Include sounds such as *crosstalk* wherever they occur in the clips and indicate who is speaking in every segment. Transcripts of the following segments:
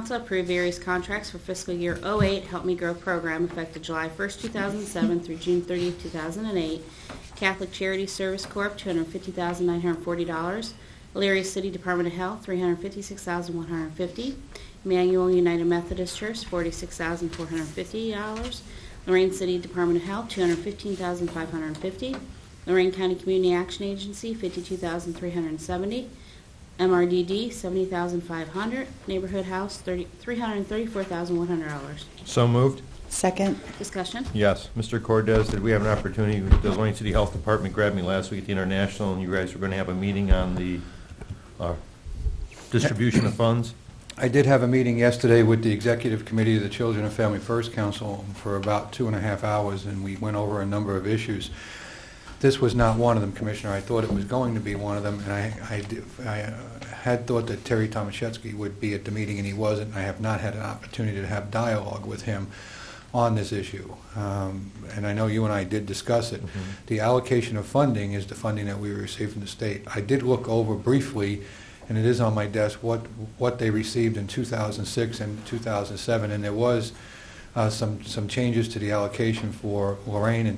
Speaker 1: Council approve various contracts for fiscal year '08 Help Me Grow program effective July 1st, 2007 through June 30th, 2008. Catholic Charity Service Corp., $250,940. Elyria City Department of Health, $356,150. Emmanuel United Methodist Church, $46,450. Lorraine City Department of Health, $215,550. Lorraine County Community Action Agency, $52,370. MRDD, 70500 Neighborhood House, 30 $334,100.
Speaker 2: So moved?
Speaker 3: Second,
Speaker 1: Discussion?
Speaker 2: Yes. Mr. Cordez, did we have an opportunity, the Lorraine City Health Department grabbed me last week at the International, and you guys were going to have a meeting on the uh, distribution of funds?
Speaker 4: I did have a meeting yesterday with the Executive Committee of the Children and Family First Council for about two and a half hours, and we went over a number of issues. This was not one of them, Commissioner. I thought it was going to be one of them, and I- I did- I uh, had thought that Terry Tomaszewski would be at the meeting, and he wasn't. I have not had an opportunity to have dialogue with him on this issue. Um, And I know you and I did discuss it. The allocation of funding is the funding that we receive from the state. I did look over briefly, and it is on my desk, what, what they received in 2006 and 2007, and there was uh, some, some changes to the allocation for Lorraine in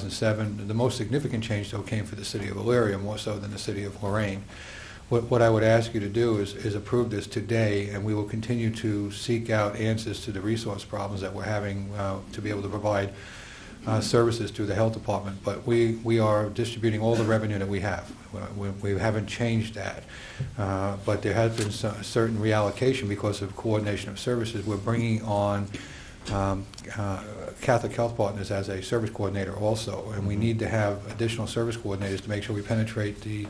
Speaker 4: 2007. The most significant change, though, came for the city of Elyria, more so than the city of Lorraine. What, what I would ask you to do is, is approve this today, and we will continue to seek out answers to the resource problems that we're having uh, to be able to provide uh, services to the health department, but we, we are distributing all the revenue that we have. We, we haven't changed that. Uh, But there has been so- certain reallocation because of coordination of services. We're bringing on um, uh, Catholic Health Partners as a service coordinator also, and we need to have additional service coordinators to make sure we penetrate the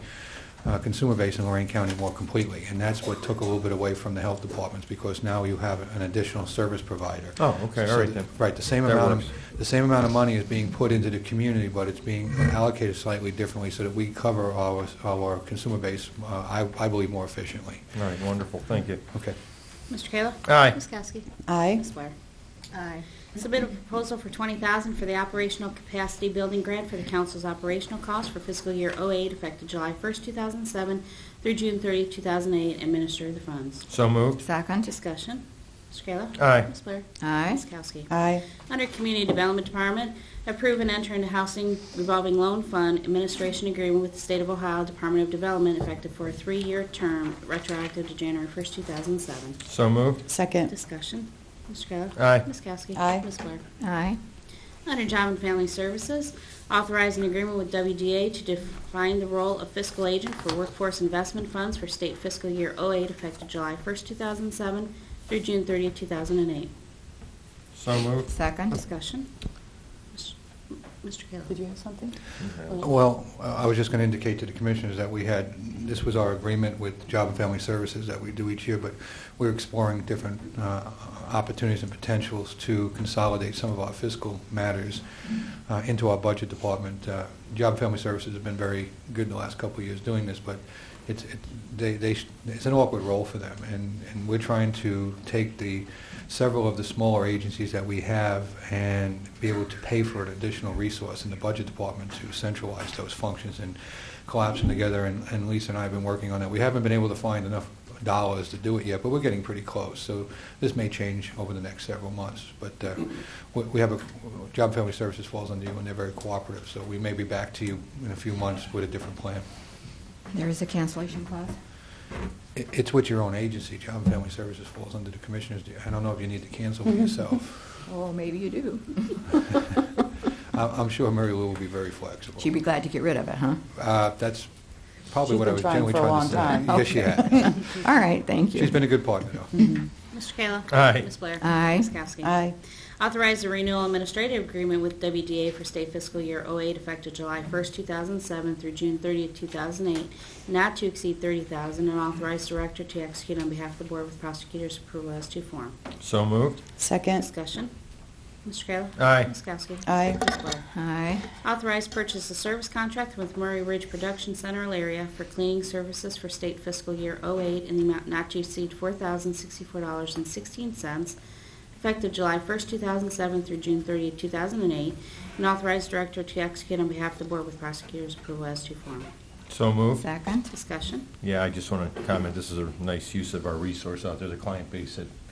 Speaker 4: uh, consumer base in Lorraine County more completely. And that's what took a little bit away from the health departments, because now you have an additional service provider.
Speaker 2: Oh, okay, all
Speaker 4: So
Speaker 2: right
Speaker 4: the-
Speaker 2: then.
Speaker 4: Right, the same
Speaker 2: That
Speaker 4: amount
Speaker 2: works.
Speaker 4: of, the same amount of money is being put into the community, but it's being allocated slightly differently so that we cover our, our consumer base, uh, I, I believe, more efficiently.
Speaker 2: All right, wonderful, thank you.
Speaker 4: Okay.
Speaker 1: Mr. Kayla?
Speaker 2: Aye.
Speaker 1: Ms. Kowski?
Speaker 3: aye.
Speaker 1: Ms. Blair? Aye. Submit a proposal for $20,000 for the operational capacity building grant for the council's operational costs for fiscal year '08 effective July 1st, 2007 through June 30th, 2008. Administer the funds.
Speaker 2: So moved?
Speaker 5: Second.
Speaker 1: Discussion? Mr. Kayla?
Speaker 2: Aye.
Speaker 1: Ms. Blair?
Speaker 5: Aye.
Speaker 1: Ms. Kowski?
Speaker 3: Aye.
Speaker 1: Under Community Development Department, approve and enter into housing revolving loan fund administration agreement with the State of Ohio Department of Development effective for a three-year term retroactive to January 1st, 2007.
Speaker 2: So moved?
Speaker 3: Second,
Speaker 1: Discussion. Mr. Kayla?
Speaker 2: Aye.
Speaker 1: Ms. Kowski?
Speaker 3: Aye.
Speaker 1: Ms. Blair?
Speaker 5: Aye.
Speaker 1: Under Job and Family Services, authorize an agreement with WDA to define the role of fiscal agent for workforce investment funds for state fiscal year 08 effective July 1st, 2007 through June 30th, 2008.
Speaker 2: So moved?
Speaker 5: Second.
Speaker 1: Discussion. Mr. Kayla?
Speaker 3: Did you have something?
Speaker 4: Well, uh, I was just going to indicate to the commissioners that we had, this was our agreement with Job and Family Services that we do each year, but we're exploring different uh, opportunities and potentials to consolidate some of our fiscal matters uh, into our budget department. Uh, Job and Family Services has been very good the last couple of years doing this, but it's, it- they, they sh- it's an awkward role for them, and, and we're trying to take the, several of the smaller agencies that we have and be able to pay for an additional resource in the budget department to centralize those functions and collapse them together, and and Lisa and I have been working on that. We haven't been able to find enough dollars to do it yet, but we're getting pretty close, so this may change over the next several months, but uh, we- we have, a Job and Family Services falls under you, and they're very cooperative, so we may be back to you in a few months with a different plan.
Speaker 5: There is a cancellation clause.
Speaker 4: It- It's with your own agency, Job and Family Services falls under the commissioners. Do you- I don't know if you need to cancel it yourself.
Speaker 5: Oh, maybe you do.
Speaker 4: I- I'm sure Mary Lou will be very flexible.
Speaker 5: She'd be glad to get rid of it, huh?
Speaker 4: Uh, That's probably
Speaker 3: She's
Speaker 4: what I
Speaker 3: been
Speaker 4: was
Speaker 3: trying
Speaker 4: generally
Speaker 3: for a
Speaker 4: trying to say.
Speaker 3: long time.
Speaker 4: Yes, she
Speaker 5: Okay.
Speaker 3: *laughs*
Speaker 4: has.
Speaker 5: *laughs* All right, thank you.
Speaker 4: She's been a good partner, though.
Speaker 3: Mm-hmm.
Speaker 1: Mr. Kayla?
Speaker 2: Aye.
Speaker 1: Ms. Blair?
Speaker 5: Aye.
Speaker 1: Ms. Kowski?
Speaker 3: Aye.
Speaker 1: Authorize the renewal administrative agreement with WDA for state fiscal year 08 effective July 1st, 2007 through June 30th, 2008, not to exceed 30000 and authorize director to execute on behalf of the board with prosecutor's approval as to form.
Speaker 2: So moved?
Speaker 3: Second,
Speaker 1: Discussion. Mr. Kayla?
Speaker 2: Aye.
Speaker 1: Ms. Kowski?
Speaker 3: Aye.
Speaker 1: Ms. Blair?
Speaker 5: Aye.
Speaker 1: Authorize purchase of service contract with Murray Ridge Production Center, area for cleaning services for state fiscal year 08 in the amount not to exceed $4,064.16, effective July 1st, 2007 through June 30th, 2008, and authorize director to execute on behalf of the board with prosecutor's approval as to form.
Speaker 2: So
Speaker 4: Oh.
Speaker 2: moved?
Speaker 5: Second.
Speaker 1: Discussion.
Speaker 2: Yeah, I just want to comment, this is a nice use of our resource out there, the client base that